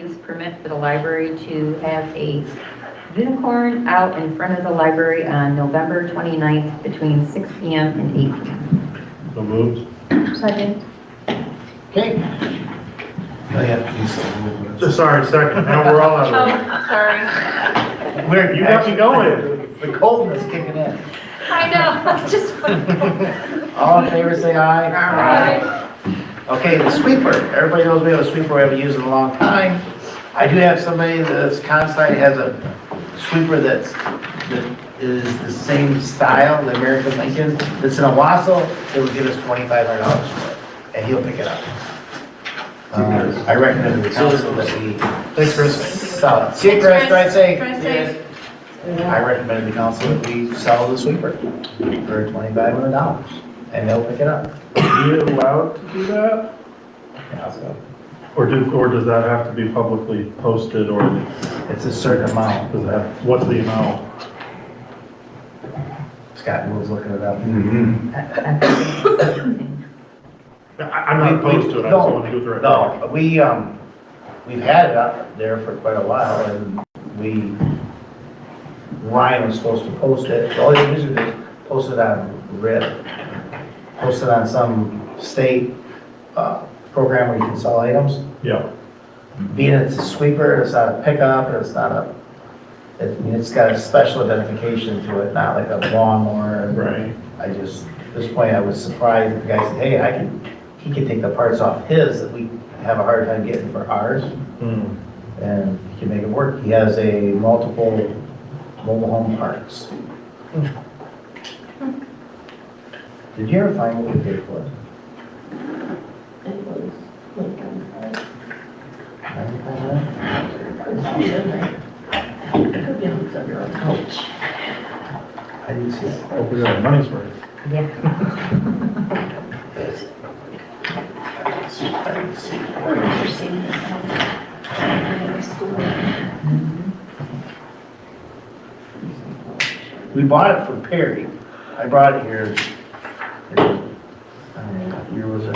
use permit for the library to have a unicorn out in front of the library on November 29th between 6 PM and 8 PM. So moved. Second. Okay. Oh, I have to do something with this. Sorry, second, now we're all out of Oh, sorry. it. Where, you got me going. The coldness kicking in. I know, just. All in favor, say aye. Aye. Okay, the sweeper. Everybody knows we have a sweeper we haven't used in a long time. I do have somebody that's constantly has a sweeper that's, that is the same style, the American Lincoln, that's in a wassail. It would give us twenty-five hundred dollars for it, and he'll pick it up. Uh, I recommend to the council that we Thanks, Chris. sell it. See, Chris, try and say. Try and say. I recommend the council that we sell the sweeper for twenty-five hundred dollars, and they'll pick it up. Are you allowed to do that? Yeah, so Or do, or does that have to be publicly posted or does It's a certain amount. that, what's the amount? Scott Moore's looking it up. I, I'm not opposed to it, I just want to go through it. No, we, um, we've had it up there for quite a while, and we, Ryan was supposed to post it, all he did was post it on RIP, post it on some state, uh, program where you can sell items. Yeah, being it's a sweeper, it's not a pickup, and it's not a, it- I mean, it's got a special identification to it, not like a lawnmower. right. I just, at this point, I was surprised, that the guy said, hey, I can, he can take the parts off his that we have a hard time getting for ours, Hmm. and he can make it work. He has a multiple mobile home parks. Did you ever find what we paid for it? It was like, um, $9,500? it could be hooked up your own couch. I didn't see it. Hope we got our money's worth. Yeah, I didn't see it. I didn't see it. I remember seeing this one in the school. We bought it from Perry. I brought it here. I don't know, what year was it?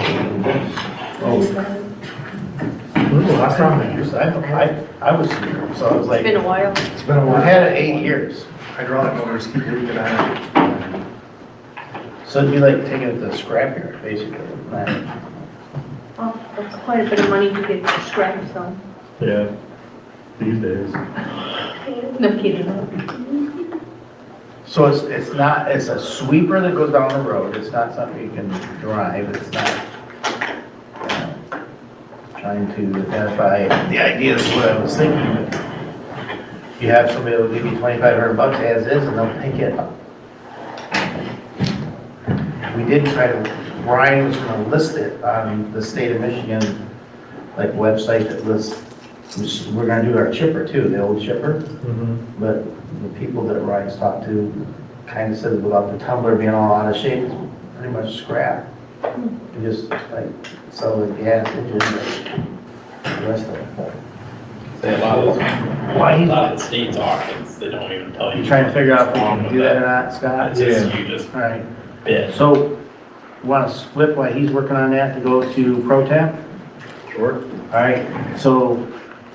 Oh, When was the last time I they used was- I, I, I was here, so I was It's like, been a while. It's been a we while. had it eight years. Hydraulic motors keep leaking out. So it'd be like taking it to the scrapyard, basically. Not- Oh, That's quite a bit of money to get scrapped, so. it? Yeah, these days. No kidding. So it's, it's not, it's a sweeper that goes down the road. It's not something you can drive. It's not uh, trying to identify the idea is what I was thinking. but You have somebody that'll give you twenty-five hundred bucks as is and they'll pick it up. We did try to, Brian was gonna list it on the state of Michigan, like website that lists, which we're gonna do our chipper too, the old chipper. Mhm. But the people that Ryan's talked to kind of said about the tumbler being all out of shape, it's pretty much scrap. You just like sell the gas engine, but the rest of it. Say a lot of, Why a he's lot of the states are, it's, they don't even tell you. You trying to figure out if we what's wrong can with do that or not, It's Scott? just, you just All right, bid. so want to split while he's working on that to go to Pro Tap? Sure. All right, so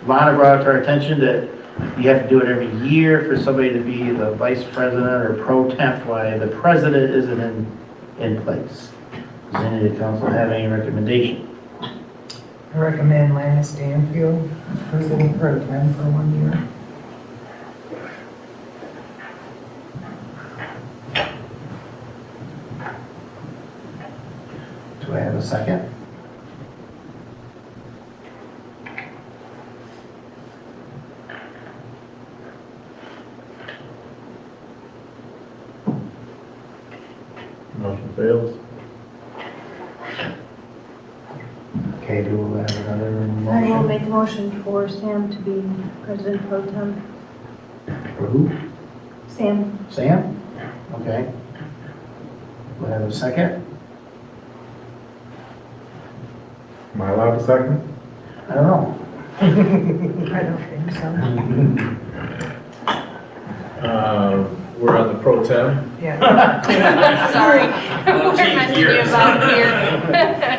Lana brought it to our attention that you have to do it every year for somebody to be the vice president or pro temp, why the president isn't in, in place. Does any of the council have any recommendation? I recommend Lana Stanfield, president pro tem for one year. Do I have a second? Motion fails. Okay, do we have another I will motion? make a motion for Sam to be president pro tem. For who? Sam, Sam? Okay. Do I have a second? Am I allowed to second? I don't know. I don't think so. Uh, Um, We're on the pro temp. Yeah. sorry. Where Well, am I gee, thinking about here? Uh,